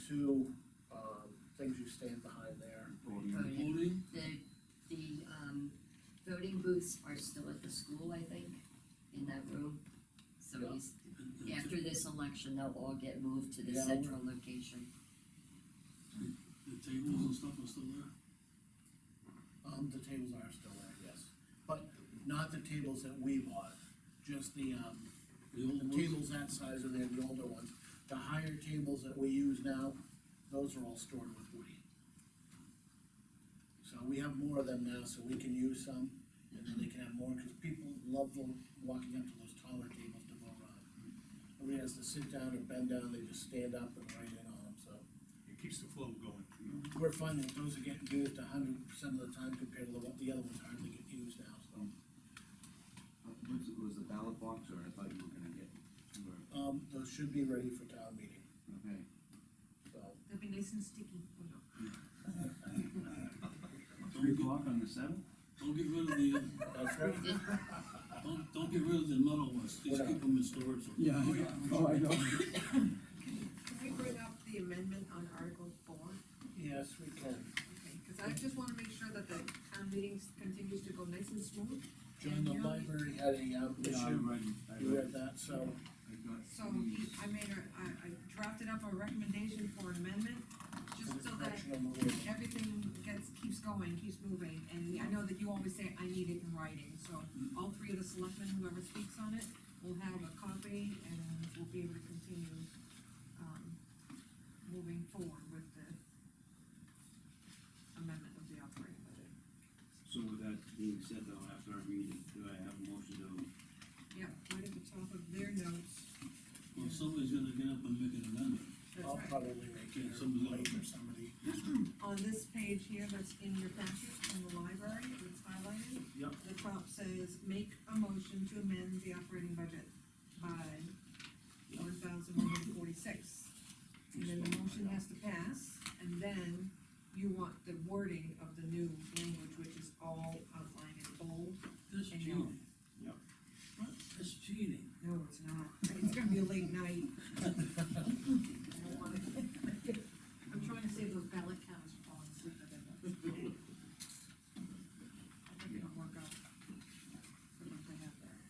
two, um, things you stand behind there. Voting. Voting, The, the, um, voting booths are still at the school, I think, in that room. So Yeah. he's, and- and the- after this election, they'll all get moved to the Yeah. central location. The tables and stuff are still there? Um, the tables are still there, yes, but not the tables that we bought, just the, um, The old the ones? tables that size are there, the older ones. The higher tables that we use now, those are all stored with Woody. So we have more of them now, so we can use some, and then they can have more, cause people love them, walking up to those taller tables to vote on. Nobody has to sit down or bend down, they just stand up and write in on them, so. It keeps the flow going. We're finding that those are getting used a hundred percent of the time compared to the, one- the other ones hardly get used now, so. Was it, was the ballot box, or I thought you were gonna get, you were, Um, those should be ready for town meeting, okay. so. They'll be nice and sticky. Don't get, o'clock on the seventh? don't get rid of the, uh, That's right. don't, don't get rid of the metal ones, just keep them in storage. Yeah, oh, I know. Can we bring up the amendment on Article four? Yes, we can. Okay, cause I just wanna make sure that the town meeting continues to go nice and smooth. John, the library had a, um, Yeah, I issue, read, I you read read, that, so, I got. So he, I made a, I, I drafted up a recommendation for an amendment, just for the so that correction on the wording. everything gets, keeps going, keeps moving. And I know that you always say, I need it in writing, so all three of the selectmen, whoever speaks on it, will have a copy and uh, we'll be able to continue, um, moving forward with the amendment of the operating budget. So with that being said though, after I read it, do I have a motion to? Yep, right at the top of their notes, Well, somebody's gonna get up and make an amendment. that's I'll right. probably make Yeah, it somebody's late gonna- for somebody. On this page here, that's in your packet in the library, it's highlighted. Yep. The top says, make a motion to amend the operating budget by one thousand one hundred forty-six. And then the motion has to pass, and then you want the wording of the new language, which is all outlined in bold. That's I know. cheating. Yep. What? That's cheating. No, it's not, it's gonna be a late night. I don't want it. I'm trying to save those ballot counts for falling asleep at the end. I think it'll work out. for what they have there.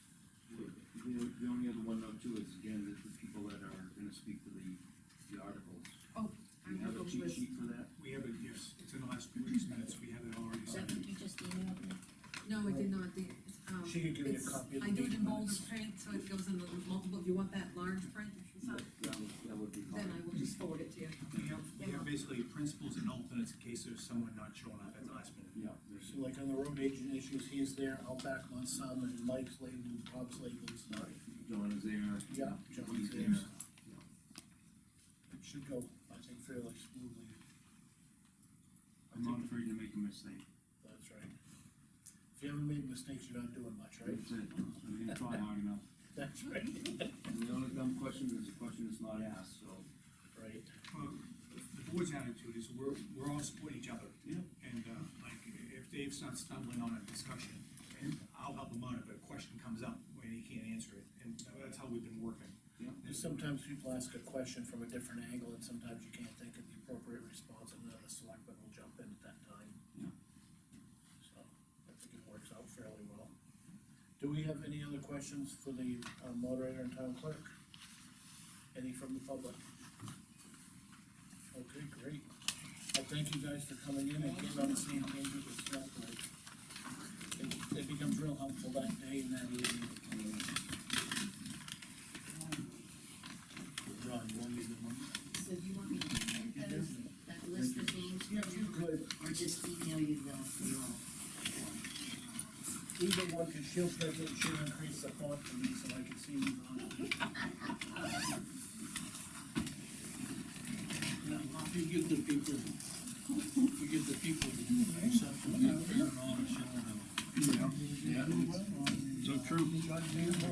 The, the only other one note too is again, that the people that are gonna speak to the, the articles. Oh, Do you I have a have those cheat lists. sheet for that? We have it, yes, it's in the last week's minutes, we have it already. Is that what you just emailed me? No, I did not, the, it's, um. She could give me a it's- copy of the I do it in meeting bold minutes. print, so it goes in the multiple, you want that large print, so That would, that would be then I fine. will just forward it to you. We have, we have basically principles and alternates in case there's someone not showing up at the last minute. Yeah, there's, So like on the road agent issues, he's there, I'll back him on some, and Mike's late, and Bob's late, and stuff. John is there. Yeah, John's He's there. there. It should go, I think fairly smoothly, I'm not afraid to make a mistake. that's right. If you haven't made mistakes, you're not doing much, right? That's it, I'm gonna try hard enough. That's right. And the only dumb question is a question that's not asked, so. Right. Well, The board's attitude is we're, we're all supporting each other. Yeah. And, uh, like, if Dave's not stumbling on a discussion, I'll help him out if a question comes up when he can't answer it, and that's how we've been working. Yeah. And Sometimes people ask a question from a different angle, and sometimes you can't think of the appropriate response, and then the selectman will jump in at that time. Yeah. So, I think it works out fairly well. Do we have any other questions for the uh, moderator and town clerk? Any from the public? Okay, great. Well, thank you guys for coming in and getting on the same page with the staff, like, it, it becomes real helpful that day and that evening. Ron, you want to leave the money? So you want me to print those, that list of names? Yeah, if you could, Or just email you the, the all? either one, cause she'll print it, she'll increase the font for me, so I can see who's on it. Now, if you give the people, if you give the people the exception, they're fair and honest, you don't have. Yeah, so true. I didn't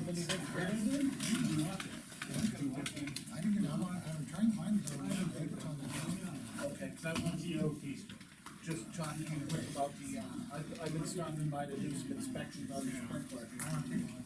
get, I'm, I'm trying to find the, it's on the calendar. Okay, cause I want you, just talking about the, uh, I've, I've been stopping by to do some inspections on the sprinkler. I want to take a look.